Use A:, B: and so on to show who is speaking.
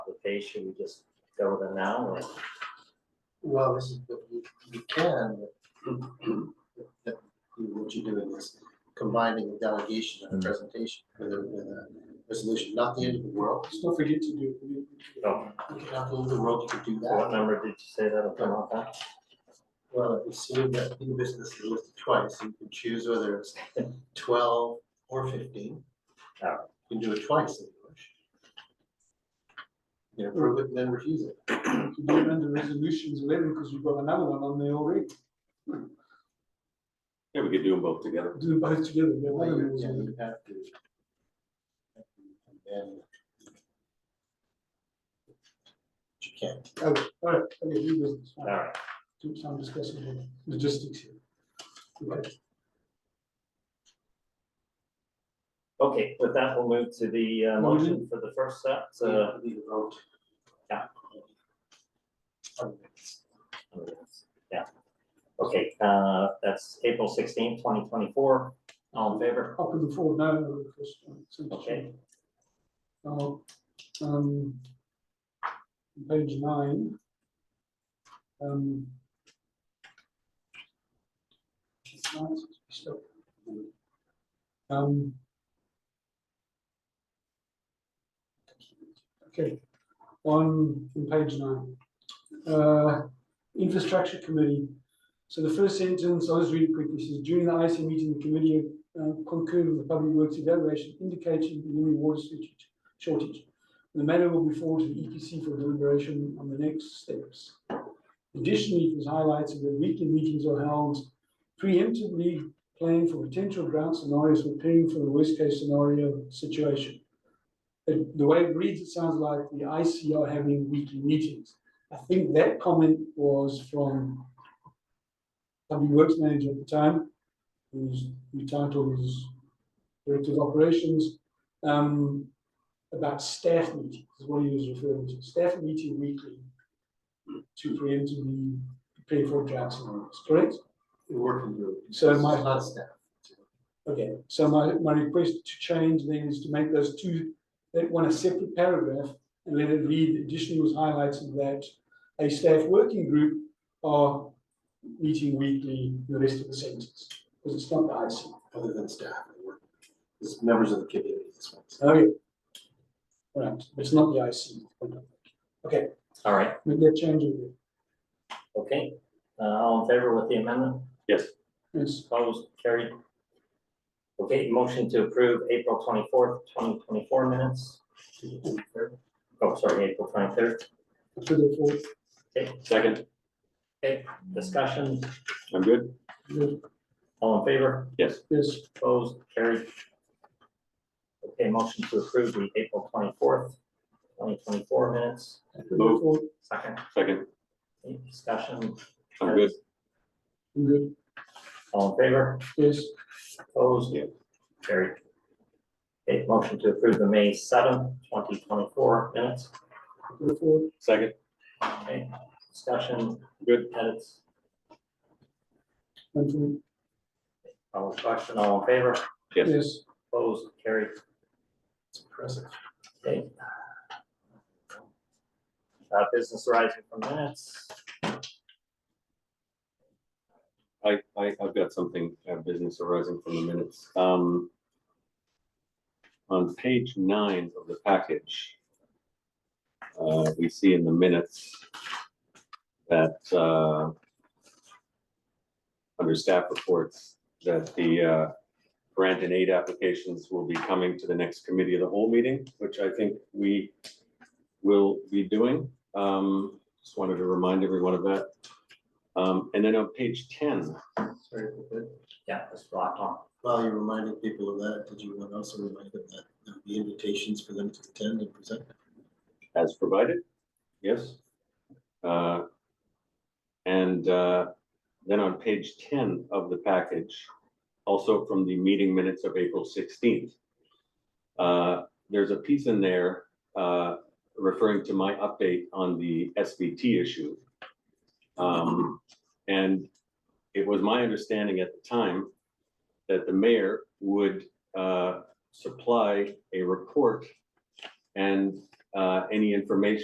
A: okay, should we just go with it now or?
B: Well, this is, you, you can, but what you're doing is combining the delegation and the presentation with a, with a resolution, not the end of the world.
C: Don't forget to do. we-
A: Oh.
B: You cannot move the world to do
A: What
B: that.
A: number did you say that'll come up at?
B: Well, if you see that new business is listed twice, you can choose whether it's twelve or fifteen. You
A: Oh.
B: can do it twice if you wish. You can approve it and then refuse it.
C: You can do it under resolutions eleven, because we've got another one on there already,
D: Yeah, we could do them both together.
C: do them both together, we
B: Well,
C: have one of
B: you-
C: those
B: yeah,
C: already.
B: you have to. And- But You can't.
C: Oh, all right, okay, new business, all
A: All
C: right,
A: right,
C: do some discussion on logistics here. Okay,
A: okay, with that, we'll move to the uh, motion for the first set, uh,
B: Need a vote.
A: Yeah.
B: Um,
A: yeah. Okay, uh, that's April sixteenth, twenty twenty-four, all in favor?
C: up in the forward now, no, uh, the first one, so-
A: Okay.
C: Now, um, page nine. Um. it's nice, it's stuck. Um. Okay, on, on page nine. Uh, infrastructure committee. So the first sentence, I'll just read it quickly, says during the IC meeting, the committee uh, concurred with the public works evaluation indicating the new water shortage- shortage. The matter will be forwarded to the EPC for deliberation on the next steps. Additionally, it was highlighted that weekly meetings are held preemptively planning for potential drought scenarios, preparing for the worst case scenario situation. It- The way it reads, it sounds like the IC are having weekly meetings. I think that comment was from public works manager at the time, whose whose title is Director of Operations, um, about staff meetings, is what he was referring to, staff meeting weekly to preemptively prepare for drought scenarios, correct?
B: We're working group.
C: So my-
B: It's Not staff.
C: Okay, so my, my request to change then is to make those two, that one a separate paragraph and let it read, additionally was highlighted that a staff working group are meeting weekly, the rest of the sentence, because it's not the IC.
B: Other than staff, they work. It's members of the community, this one.
C: Okay. All Oh, right, but it's not the IC. Okay,
A: All right,
C: make that change in there.
A: okay, uh, all in favor with the amendment,
D: Yes,
C: Yes,
A: opposed, carried. Okay, motion to approve April twenty-fourth, twenty twenty-four minutes. Oh, sorry, April twenty-third,
C: to the fourth,
D: second,
A: okay, discussion,
D: I'm good.
C: good,
A: all in favor?
D: Yes,
C: yes,
A: Opposed, carried. Okay, motion to approve the April twenty-fourth, twenty twenty-four minutes,
C: to the fourth,
A: second,
D: second,
A: any discussion,
D: I'm good.
C: good,
A: all in favor,
C: yes,
A: opposed?
D: Yeah.
A: Carried. Okay, motion to approve the May seventh, twenty twenty-four minutes,
C: to the fourth,
D: Second,
A: okay, discussion,
D: good.
A: edits,
C: and to,
A: all question, all in favor,
D: Yes.
C: yes,
A: opposed, carried.
B: It's impressive.
A: Okay. Uh, business arising from minutes,
D: I, I, I've got something, uh, business arising from the minutes. Um, on page nine of the package, uh, we see in the minutes that, uh, under staff reports, that the, uh, grant and aid applications will be coming to the next committee of the whole meeting, which I think we will be doing. Um, just wanted to remind everyone of that. Um, and then on page ten,
B: Sorry for that.
A: yeah, it's blocked on,
B: While you're reminding people of that, did you want to also remind them that there will be invitations for them to attend and present?
D: as provided, yes. Uh, And uh, then on page ten of the package, also from the meeting minutes of April sixteenth, uh, there's a piece in there uh, referring to my update on the SBT issue. Um, And it was my understanding at the time that the mayor would uh, supply a report and uh, any information